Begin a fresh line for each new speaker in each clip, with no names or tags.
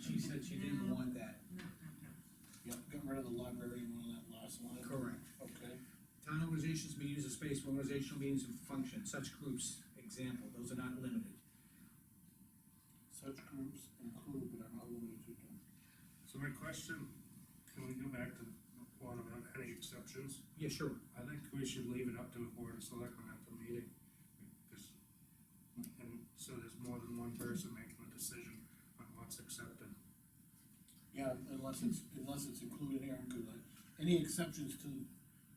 she said she didn't want that.
Yep, got rid of the library and all that last line.
Correct.
Okay.
Town organizations may use a space for organizational meetings and functions, such groups, example, those are not limited.
Such groups include but are not limited to.
So my question, can we go back to one about any exceptions?
Yeah, sure,
I think we should leave it up to the board of selectmen at the meeting, because, and so there's more than one person making the decision on what's accepted.
Yeah, unless it's, unless it's included here, I'm good. with it. Any exceptions to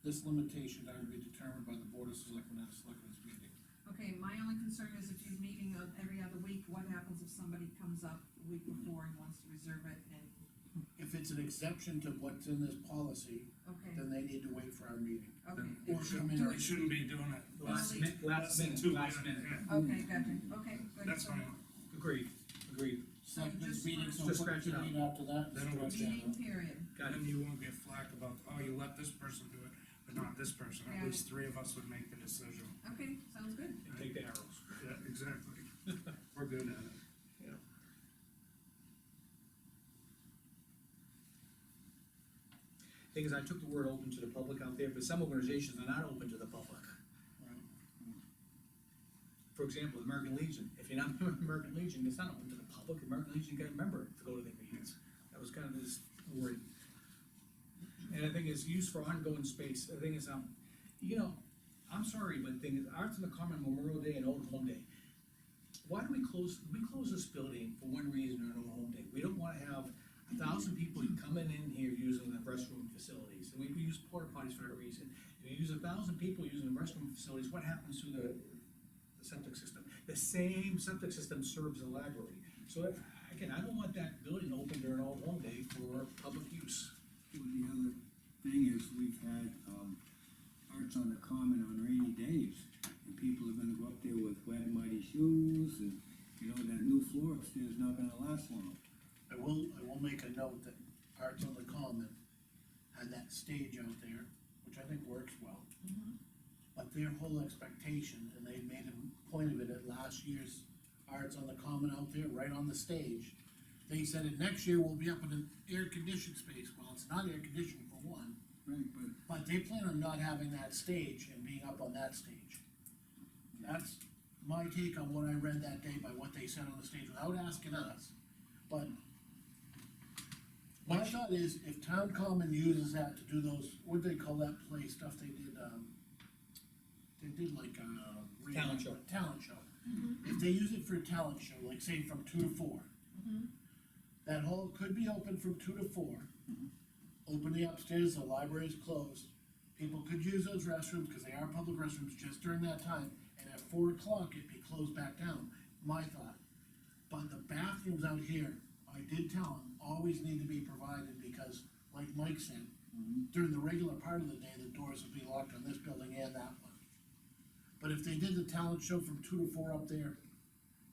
this limitation are to be determined by the board of selectmen at a selectmen's meeting.
Okay, my only concern is if you're meeting on every other week, what happens if somebody comes up the week before and wants to reserve it and,
If it's an exception to what's in this policy,
Mm.
okay,
then they need to wait for our meeting.
okay.
Then We shouldn't, we shouldn't be doing it.
last
Last-
minute, last
less than two
minute, last minute,
minutes,
Okay, gotcha, okay,
yeah.
good.
That's
So
fine,
agreed, agreed,
Selectmen's
Just-
meeting, so
Just
put
scratch it
the
out.
meeting after that.
Then
scratch that
Meeting
out.
period,
got it,
and you won't get flack about, oh, you let this person do it, but not this person,
Yeah.
at least three of us would make the decision.
okay, sounds good.
and take the arrows.
Yeah, exactly, we're good at it.
Thing is, I took the word open to the public out there, but some organizations are not open to the public.
Right.
For example, the American Legion, if you're not a member of the American Legion, it's not open to the public, The American Legion got a member to go to their meetings. That was kind of this word. And I think it's used for ongoing space, the thing is, um, you know, I'm sorry, but the thing is, Arts in the Common Memorial Day and Old Home Day. Why do we close, we close this building for one reason or another Home Day, we don't wanna have a thousand people coming in here using the restroom facilities, and we we use porta potties for that reason. If you use a thousand people using the restroom facilities, what happens to the the septic system. The same septic system serves the library. So uh, again, I don't want that building open during all home day for public use.
Well, the other thing is, we've had, um, arts on the common on rainy days, and people are gonna go up there with wet and muddy shoes, and, you know, that new floor upstairs not gonna last long.
I will, I will make a note that Arts on the Common had that stage out there, which I think works well. But their whole expectation, and they made a point of it at last year's Arts on the Common out there, right on the stage. They said that next year we'll be up in an air-conditioned space, well, it's not air-conditioned for one,
Right, but
but they plan on not having that stage and being up on that stage. That's my take on what I read that day by what they said on the stage without asking us, but. My thought is if town common uses that to do those, what they call that play stuff they did, um, they did like, uh. re-
Talent show.
Talent show. If they use it for a talent show, like say from two to four. That hall could be open from two to four open the upstairs, the library is closed. People could use those restrooms, because they are public restrooms, just during that time, and at four o'clock, it'd be closed back down, my thought. But the bathrooms out here, I did tell them, always need to be provided, because like Mike said, during the regular part of the day, the doors would be locked on this building and that one. But if they did the talent show from two to four up there,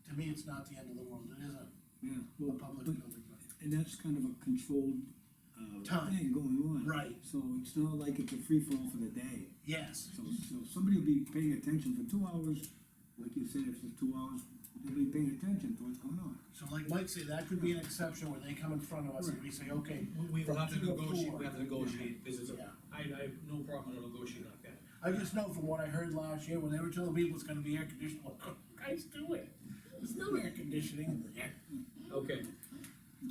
to me, it's not the end of the world, it is a,
Yeah,
a
well,
public
but,
building.
and that's kind of a controlled, uh,
Time.
thing going on.
Right.
So it's not like it's a free fall for the day,
Yes,
so, so somebody will be paying attention for two hours, like you said, if it's two hours, they'll be paying attention to what's going on.
So like Mike said, that could be an exception where they come in front of us and we say, okay,
We will have to
From two to
negotiate,
four.
we have to negotiate, this is, a-
Yeah.
I, I have no problem with negotiating like that.
I just know from what I heard last year, when they were telling people it's gonna be air conditioned, well, guys, do it. There's no air conditioning in there.
Okay.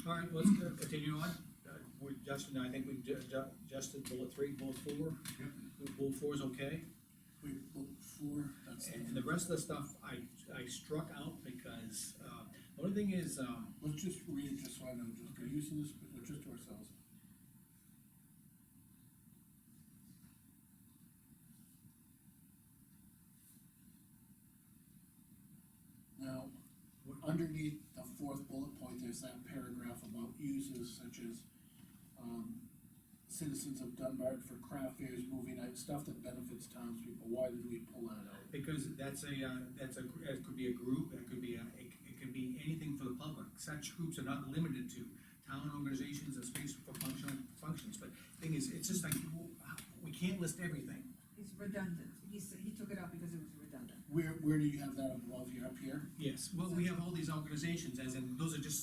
All right, let's uh, continue on. Uh, We, Justin, I think we ju- ju- adjusted bullet three, bullet four. Bullet four is okay.
We booked four, that's,
And the rest of the stuff I, I struck out because, uh, the only thing is, um,
let's just read it just so I know, just for use in this, but just to ourselves. Now, underneath the fourth bullet point, there's that paragraph about uses such as, um, citizens of Dunbar for craft fairs, movie nights, stuff that benefits townspeople, why did we pull that out?
Because that's a, uh, that's a, it could be a group, it could be a, it, it could be anything for the public, such groups are not limited to town organizations and space for functional functions, but thing is, it's just like, w- we can't list everything.
It's redundant, he said, he took it out because it was redundant.
Where, where do you have that above here, up here?
Yes, well, we have all these organizations, as in, those are just